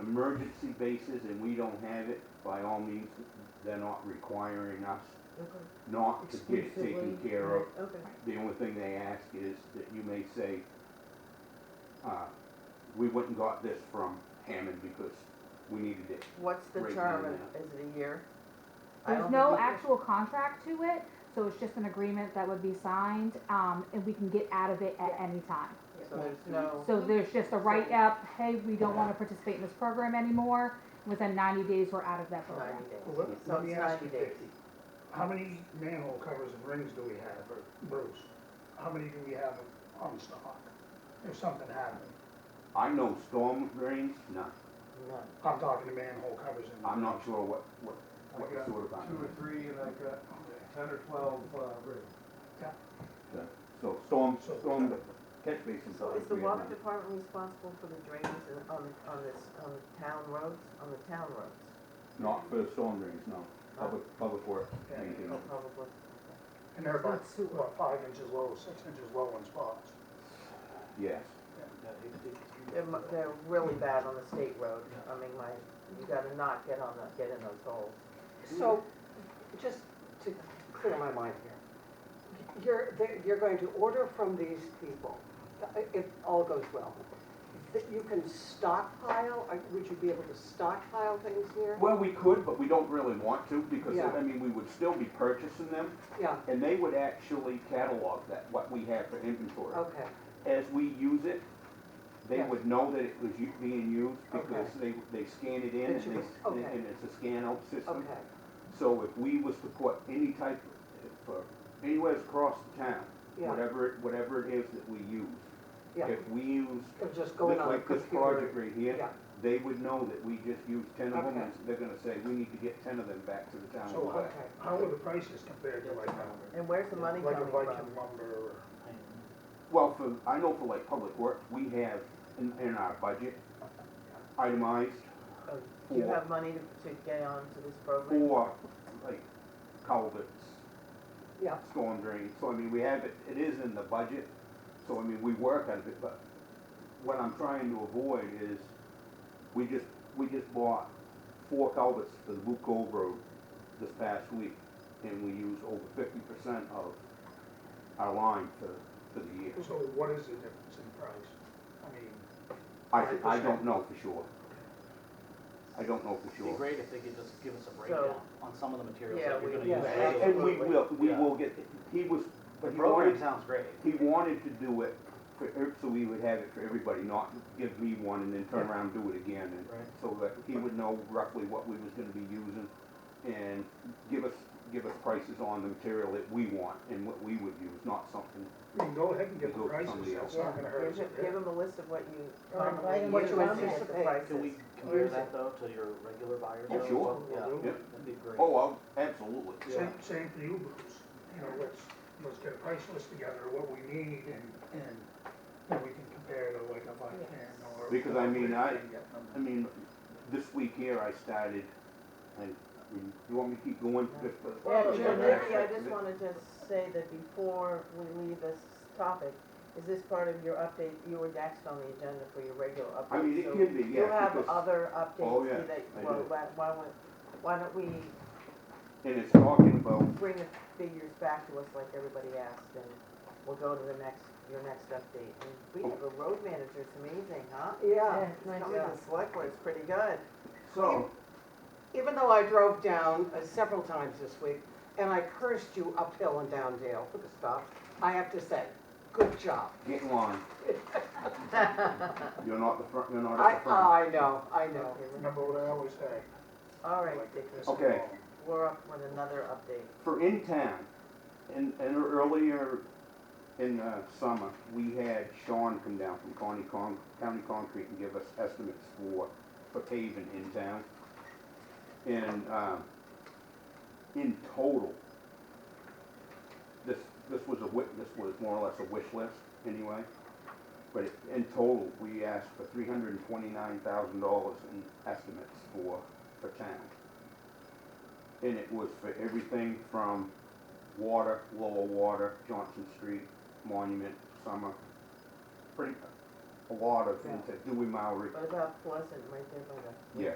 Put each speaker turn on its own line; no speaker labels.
emergency basis and we don't have it, by all means, they're not requiring us
Okay.
not to get it taken
Exclusively,
care of.
right, Okay,
The only thing they ask is that you may say, uh, we went and got this from Hammond because we needed it.
What's the
Right
term?
now,
Is it a year? I
There's
don't
no
think it-
actual contract to it, so it's just an agreement that would be signed, um, and we can get out of it at any time.
So there's no,
So there's just a write-up, hey, we don't wanna participate in this program anymore, within ninety days, we're out of that program.
ninety days.
Well, let-
So
let
it's
me ask you,
90 days.
Vicky, how many manhole covers and rings do we have, or Bruce? How many do we have on stock if something happened?
I know storm drains, no,
None.
I'm talking to manhole covers and.
I'm not sure what, what,
I
what
got
sort of.
two or three, and I got ten or twelve, uh, rigs.
So storm,
So-
storm catch basins.
So
are
is the
three
water
around.
department responsible for the drains in- on, the- on this, on the town roads, on the town roads?
Not for storm drains, no, public, public work,
Yeah.
anything.
Oh, Probably.
And they're about,
Not sewer.
what, five inches low, six inches low in spots.
yes.
They're, mu- they're really bad on the state road. I mean, my, you gotta not get on the, get in those holes.
So, just to clear my mind here, you're, they're- you're going to order from these people, uh, if all goes well, that you can stockpile, uh, would you be able to stockpile things here?
Well, we could, but we don't really want to, because,
Yeah.
I mean, we would still be purchasing them,
Yeah,
and they would actually catalog that, what we have for inventory.
okay,
as we use it, they
Oh. Yeah.
would know that it was u- being used because they, they scan it in
That
and
you
they,
was-
s-
okay.
and it's a scan out system.
okay,
So if we was to put any type, of- for, anywhere across the town,
yeah,
whatever, it- whatever it is that we use.
yeah.
If we use,
It'll just go in on the
like this project
computer.
right here,
Yeah,
they would know that we just used ten of them,
Okay.
and they're gonna say, we need to get ten of them back to the town.
So
of
how,
Lubec."
how are the prices compared to like, um,
And where's the money
like a
coming
Viking
from?
lumber or?
Well, for, I know for like public works, we have in, in our budget itemized
uh,
Oh, Do you
for-
have money to, to get on to this program?
Or like culverts,
yeah,
storm drains, so I mean, we have it, it is in the budget, so I mean, we work on it, but what I'm trying to avoid is, we just, we just bought four culverts for the Boot Cove Road this past week, and we used over fifty percent of our line for, for the year.
So what is the difference in price? I mean,
I, I don't know for sure. I don't know for
It'd be
sure.
great if they could just give us a breakdown on some of the materials
Yeah,
that you're
we-
gonna
yeah,
use.
And and we will, we will get, he was,
The
but he wanted
program sounds great.
He wanted to do it for, er- so we would have it for everybody, not give me one and then turn around and do it again. and
Right.
So that he would know roughly what we was gonna be using and give us, give us prices on the material that we want and what we would use, not something.
we can go ahead and get
Go
the
to
prices,
somebody
that's
Yeah,
not gonna hurt us.
give,
yeah?
give them a list of what you,
Or invite
what
them
you
to come.
anticipate.
Can we
Oh,
compare that though to your regular buyers?
Oh,
though?
sure.
Yeah,
Yeah.
that'd be great.
Oh, I'll- absolutely.
Same, same for you, Bruce, you know, let's, let's get a price list together, what we need, and, and then we can compare to like a Vican or.
Because I mean, I-
Yeah,
I mean, this week here I started, I, I mean, you want me to keep going? Just for-
Well,
Yeah,
sure,
Jim, Nikki, I just wanted to say that before we leave this topic, is this part of your update, you were next on the agenda for your regular update?
I mean, it
so
can be,
You
yeah,
have
because,
other
Oh,
updates
yeah,
that,
I
well,
do.
why, why don't, why don't we
and it's talking about
bring the figures back to us like everybody asked and we'll go to the next, your next update. And we have a road manager, it's amazing, huh?
yeah.
Yeah, nice
Coming to
job.
the select board, it's pretty good.
So,
Even though I drove down uh, several times this week, and I cursed you uphill and down Dale for the stop, I have to say, good job.
get in line. You're not the front, you're not
I,
at the
uh,
front.
I know, I know.
Okay, we're-
Remember what I always say,
All right,
like
Dick,
this.
Okay.
we're up with another update.
for in town, and, and earlier in the summer, we had Sean come down from County Con, County Concrete and give us estimates for, for paving in town. And, um, in total, this, this was a wi, this was more or less a wish list anyway. But it- in total, we asked for three hundred and twenty-nine thousand dollars in estimates for, for town and it was for everything from water, lower water, Johnson Street, Monument, Summer, pretty, a lot of into Dewey Maury.
But about Pleasant, right there by the.
Yeah.